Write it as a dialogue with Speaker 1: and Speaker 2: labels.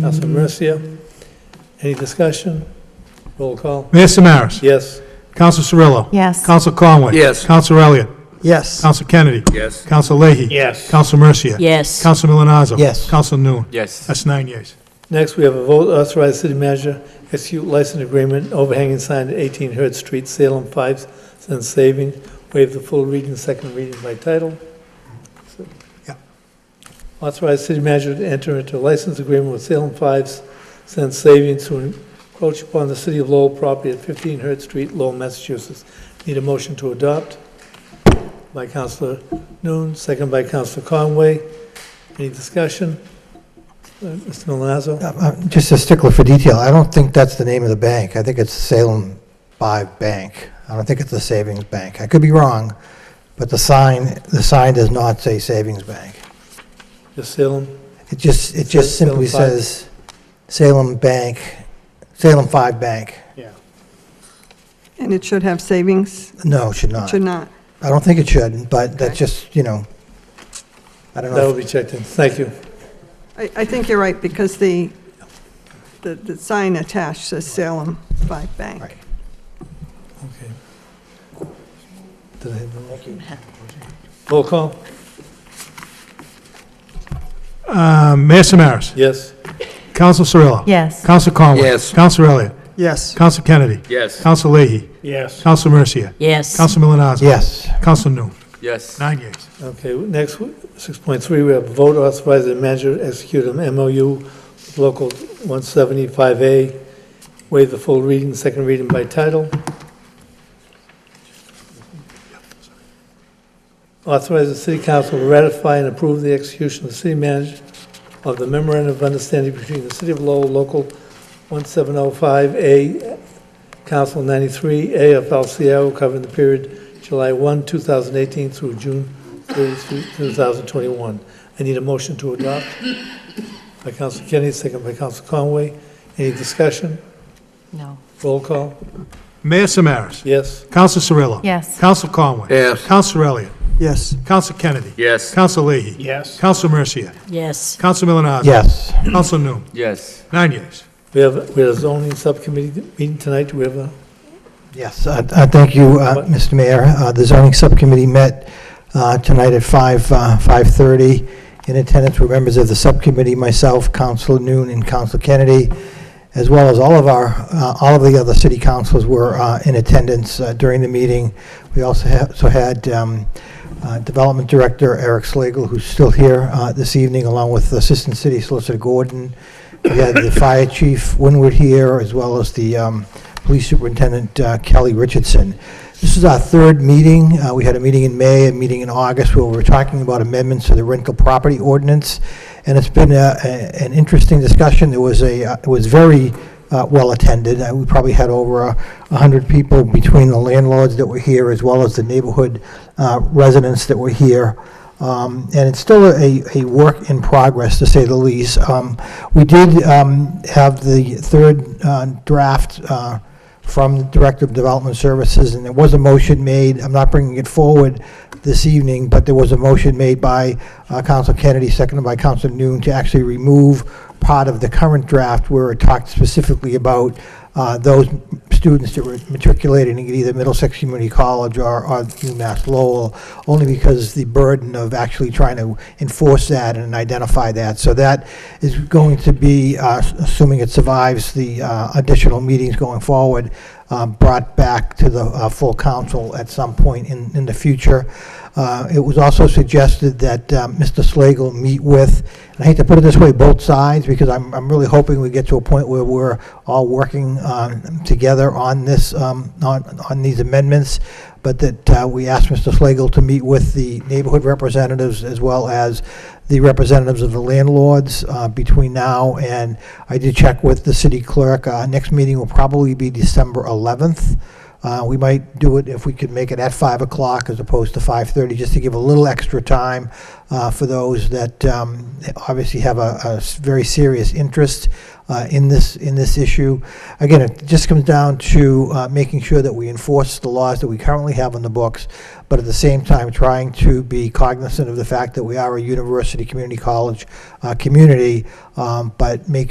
Speaker 1: Councilman Mercia. Any discussion? Roll call.
Speaker 2: Mayor Samaras.
Speaker 1: Yes.
Speaker 2: Counsel Cirillo.
Speaker 3: Yes.
Speaker 2: Counsel Conway.
Speaker 4: Yes.
Speaker 2: Counsel Elliott.
Speaker 5: Yes.
Speaker 2: Counsel Kennedy.
Speaker 4: Yes.
Speaker 2: Counsel Leahy.
Speaker 1: Yes.
Speaker 2: Counsel Mercia.
Speaker 3: Yes.
Speaker 2: Counsel Milonazo.
Speaker 5: Yes.
Speaker 2: Counsel Noon.
Speaker 4: Yes.
Speaker 2: That's nine yeas.
Speaker 1: Next, we have a vote authorized city manager execute license agreement overhanging sign at 18 Hertz Street, Salem, 5 cents saving. Waive the full reading, second reading by title.
Speaker 2: Yeah.
Speaker 1: Authorize city manager to enter into a license agreement with Salem 5 cents savings to encroach upon the city of Lowell property at 15 Hertz Street, Lowell, Massachusetts. Need a motion to adopt by Counselor Noon, second by Counselor Conway. Any discussion? Uh, Mr. Milazzo?
Speaker 5: I'm- I'm Um, Just a stickler for detail. I don't think that's the name of the bank. I think it's Salem Five Bank. I don't think it's the Savings Bank. I could be wrong, but the sign, the sign does not say Savings Bank.
Speaker 1: The Salem,
Speaker 5: It just, it
Speaker 1: Sa-
Speaker 5: just simply
Speaker 1: Salem Five.
Speaker 5: says Salem Bank, Salem Five Bank.
Speaker 6: And it should have savings?
Speaker 5: No, it should
Speaker 6: It
Speaker 5: not.
Speaker 6: should not.
Speaker 5: I don't think it should, but
Speaker 6: Okay.
Speaker 5: that's just, you know, I don't
Speaker 1: that will
Speaker 5: know.
Speaker 1: be checked in, thank you.
Speaker 6: I, I think you're right, because the, the, the sign attached says Salem Five Bank.
Speaker 5: Right.
Speaker 1: Okay. Did I have the roll? Roll call,
Speaker 2: Uh, Mayor Samaras.
Speaker 1: yes,
Speaker 2: Counsel Cirillo.
Speaker 3: Yes.
Speaker 2: Counsel Conway.
Speaker 4: Yes.
Speaker 2: Counsel Elliott.
Speaker 5: Yes.
Speaker 2: Counsel Kennedy.
Speaker 4: Yes.
Speaker 2: Counsel Leahy.
Speaker 1: Yes.
Speaker 2: Counsel Mercia.
Speaker 3: Yes.
Speaker 2: Counsel Milonazo.
Speaker 5: Yes.
Speaker 2: Counsel Noon.
Speaker 4: Yes.
Speaker 2: Nine yeas.
Speaker 1: okay, next, six point three, we have vote authorizing the manager to execute an MOU with local one seventy-five A, waive the full reading, second reading by title. Authorize the city council to ratify and approve the execution of the city manager of the memorandum of understanding between the city of Lowell, local 1705A, council 93, AFL-CIO, covering the period July 1, 2018 through June 30, 2021. I need a motion to adopt by council Kennedy, second by council Conway. Any discussion?
Speaker 3: No.
Speaker 1: Roll call?
Speaker 2: Mayor Samaras.
Speaker 1: Yes?
Speaker 2: Counsel Cirillo.
Speaker 3: Yes.
Speaker 2: Counsel Conway.
Speaker 4: Yes.
Speaker 2: Counsel Elliott.
Speaker 5: Yes.
Speaker 2: Counsel Kennedy.
Speaker 4: Yes.
Speaker 2: Counsel Leahy.
Speaker 1: Yes.
Speaker 2: Counsel Mercia.
Speaker 3: Yes.
Speaker 2: Counsel Milonazo.
Speaker 5: Yes.
Speaker 2: Counsel Noon.
Speaker 4: Yes.
Speaker 2: Nine yeas.
Speaker 1: We have, we have a zoning subcommittee meeting tonight. Do we have a,
Speaker 5: Yes, I I thank you, uh, Mr. Mayor. Uh, The zoning subcommittee met uh, tonight at 5, uh, 5:30. In attendance were members of the subcommittee, myself, Council Noon, and Council Kennedy, as well as all of our, uh, all of the other city councils were uh, in attendance uh, during the meeting. We also ha- so had um, uh, Development Director Eric Slagle, who's still here uh, this evening, along with Assistant City Solicitor Gordon. We had the Fire Chief Winward here, as well as the um, Police Superintendent uh, Kelly Richardson. This is our third meeting. Uh, We had a meeting in May, a meeting in August, where we were talking about amendments to the rental property ordinance, and it's been a- a- an interesting discussion. It was a, uh, it was very uh, well-attended. Uh, We probably had over a 100 people between the landlords that were here, as well as the neighborhood uh, residents that were here. Um, And it's still a, a work in progress, to say the least. Um, We did um, have the third uh, draft uh, from the Director of Development Services, and there was a motion made, I'm not bringing it forward this evening, but there was a motion made by uh, Counsel Kennedy, seconded by Counsel Noon, to actually remove part of the current draft where it talked specifically about uh, those students that were matriculating at either Middlesex Community College or or UMass Lowell, only because the burden of actually trying to enforce that and identify that. So that is going to be, uh, assuming it survives the uh, additional meetings going forward, uh, brought back to the uh, full council at some point in in the future. Uh, It was also suggested that um, Mr. Slagle meet with, and I hate to put it this way, both sides, because I'm, I'm really hoping we get to a point where we're all working um, together on this, um, on, on these amendments, but that uh, we asked Mr. Slagle to meet with the neighborhood representatives as well as the representatives of the landlords uh, between now and, I did check with the city clerk, uh, next meeting will probably be December 11th. Uh, We might do it if we could make it at 5 o'clock as opposed to 5:30, just to give a little extra time uh, for those that um, obviously have a a s- very serious interest uh, in this, in this issue. Again, it just comes down to uh, making sure that we enforce the laws that we currently have on the books, but at the same time, trying to be cognizant of the fact that we are a university, community college uh, community, um, but make